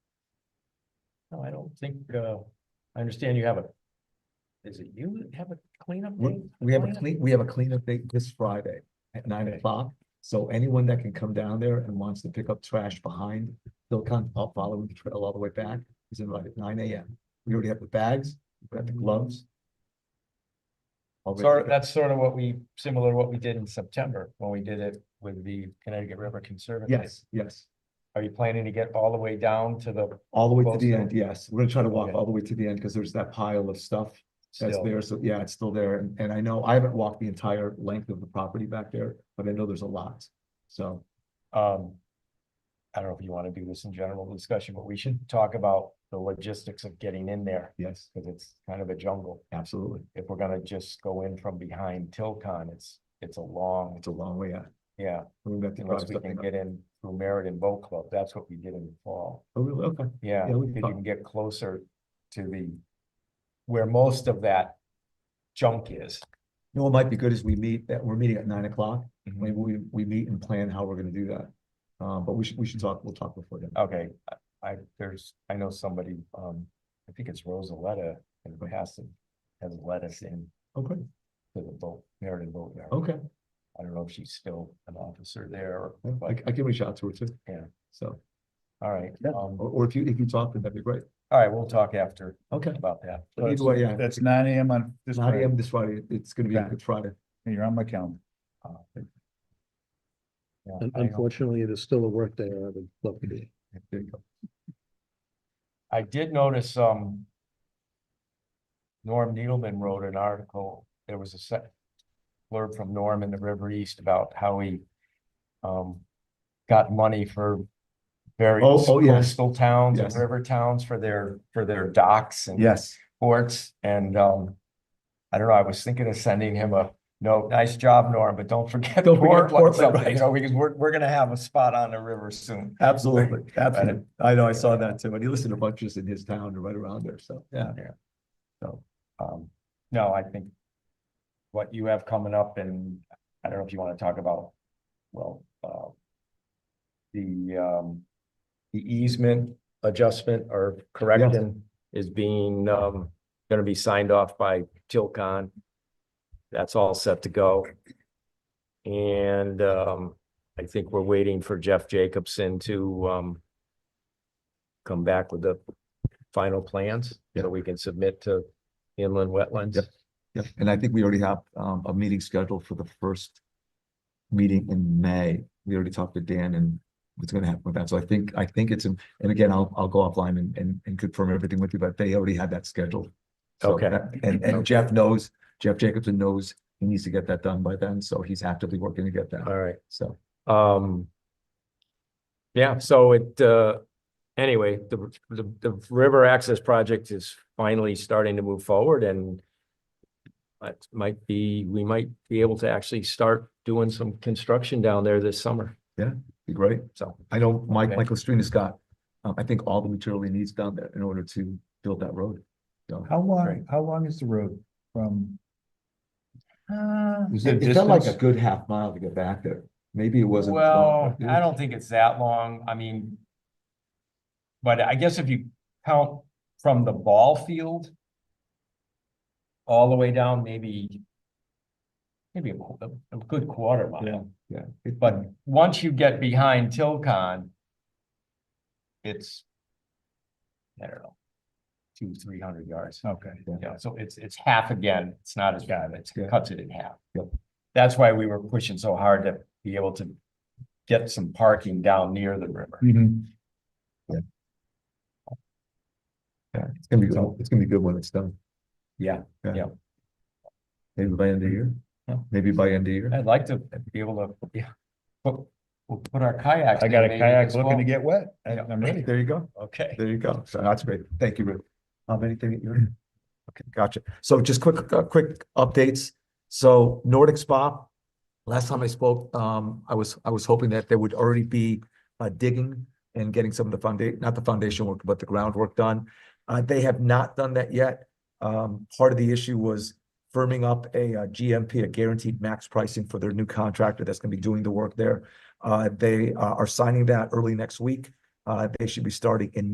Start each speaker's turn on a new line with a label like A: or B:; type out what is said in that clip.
A: No, I don't think, uh, I understand you have a. Is it you that have a cleanup?
B: We,
A: day?
B: we have a
A: Cleanup?
B: clean, we have a cleanup day this Friday at nine
A: Okay.
B: o'clock. So anyone that can come down there and wants to pick up trash behind, they'll come up following the trail all the way back, is invited at nine AM. We already have the bags, we have the gloves. All ready to
A: Sort,
B: go.
A: that's sort of what we, similar to what we did in September, when we did it with the Connecticut River Conservancy.
B: Yes, yes,
A: Are you planning to get all the way down to the
B: all the way to
A: Both
B: the
A: sides.
B: end, yes. We're gonna try to walk
A: Okay.
B: all the way to the end because there's that pile of stuff that's
A: still?
B: there. So yeah, it's still there. And- And I know I haven't walked the entire length of the property back there, but I know there's a lot. So
A: Um, I don't know if you want to do this in general discussion, but we should talk about the logistics of getting in there,
B: yes,
A: because it's kind of a jungle.
B: absolutely.
A: If we're gonna just go in from behind Tilcon, it's, it's a long,
B: It's a long way out.
A: yeah,
B: We met the
A: unless
B: drive
A: we can
B: something up.
A: get in through Meriden Boat Club, that's what we did in the fall.
B: Oh, really? Okay.
A: Yeah,
B: Yeah, we
A: because you
B: thought-
A: can get closer to the, where most of that junk is.
B: You know, what might be good is we meet, that we're meeting at nine o'clock.
A: Mhm.
B: Maybe we, we meet and plan how we're gonna do that. Um, but we should, we should talk, we'll talk before then.
A: Okay, I- I, there's, I know somebody, um, I think it's Rosaletta in Passive has let us in
B: Okay,
A: to the boat, Meriden Boat Yard.
B: Oh, okay.
A: I don't know if she's still an officer there,
B: Yeah, I,
A: but,
B: I can reach out to her too.
A: Yeah.
B: So,
A: all right.
B: Yeah.
A: um,
B: or, or if you, if you talk, then that'd be great.
A: All right, we'll talk after
B: Okay.
A: about that.
B: But Either way, yeah.
C: That's nine AM on this
B: Nine
C: Friday,
B: AM this Friday. It's gonna be a
C: Okay.
B: good Friday.
C: and you're on my calendar.
A: Uh, yeah,
D: Un-
A: I don't-
D: Unfortunately, it is still a workday. I would love to be.
B: There you go.
A: I did notice, um. Norm Needleman wrote an article, there was a sec. Blurb from Norm in the River East about how he. Um, got money for. Various
B: oh, yes.
A: coastal towns and
B: Yes.
A: river towns for their, for their docks and.
C: Yes.
A: Ports and, um. I don't know, I was thinking of sending him a, no, nice job, Norm, but don't forget
B: Don't forget
A: Portland
B: Portland,
A: someday, you
B: right.
A: know, because we're, we're gonna have a spot on the river soon.
B: Absolutely, absolutely. I know, I saw that too. And he listened to bunches in his town and right around there. So, yeah.
A: So, um, no, I think. What you have coming up and I don't know if you want to talk about, well, uh. The, um, the easement adjustment or correction is being, um, gonna be signed off by Tilcon. That's all set to go. And, um, I think we're waiting for Jeff Jacobson to, um. Come back with the final plans
B: Yeah.
A: that we can submit to inland wetlands.
B: Yep. Yep, and I think we already have um a meeting scheduled for the first meeting in May. We already talked to Dan and what's gonna happen with that. So I think, I think it's, in- and again, I'll, I'll go offline and, and, and confirm everything with you, but they already had that scheduled. So
A: Okay.
B: that- And, and Jeff knows, Jeff Jacobson knows he needs to get that done by then, so he's actively working to get that,
A: All right.
B: so.
A: Um. Yeah, so it, uh, anyway, the, the, the river access project is finally starting to move forward and. It might be, we might be able to actually start doing some construction down there this summer,
B: Be great.
A: so.
B: I know Mike,
A: Okay.
B: Michael Street got, um, I think all the material he needs down there in order to build that road. So
A: Right.
C: How long, how long is the road from? Uh. Is it
B: It it felt like a
C: distance?
B: good half mile to get back there. Maybe it wasn't.
A: Well, I don't think it's that long, I mean. But I guess if you count from the ball field. All the way down, maybe. Maybe a, qu- a a good quarter mile,
B: Yeah. it-
A: but once you get behind Tilcon. It's. I don't know. Two, three hundred yards.
C: Okay.
A: Yeah, so it's, it's half again, it's not as bad, it
B: Yeah.
A: cuts it in half.
B: Yep.
A: That's why we were pushing so hard to be able to get some parking down near the river.
C: Mhm.
B: Yeah, it's gonna be, good. it's gonna be good when it's done.
A: Yeah, yeah.
B: Maybe by end of year,
A: Yeah.
B: maybe by end of
C: Mm-hmm.
B: year.
A: I'd like to be able to, yeah, put, we'll put our kayaks.
C: I
A: in
C: got a
A: maybe
C: kayak
A: as
C: looking to
A: well.
C: get wet. I-
A: Yeah.
C: I'm ready.
B: There you go.
A: Okay.
B: There you go. So that's great. Thank you, Rick. Um, anything that you're, okay, gotcha. So just quick, uh, quick updates. So Nordic Spa, last time I spoke, um, I was, I was hoping that there would already be uh, digging and getting some of the foundation, not the foundation work, but the groundwork done. Uh, they have not done that yet. Um, part of the issue was firming up a uh, GMP, a guaranteed max pricing for their new contractor that's gonna be doing the work there. Uh, they uh, are signing that early next week. Uh, they should be starting in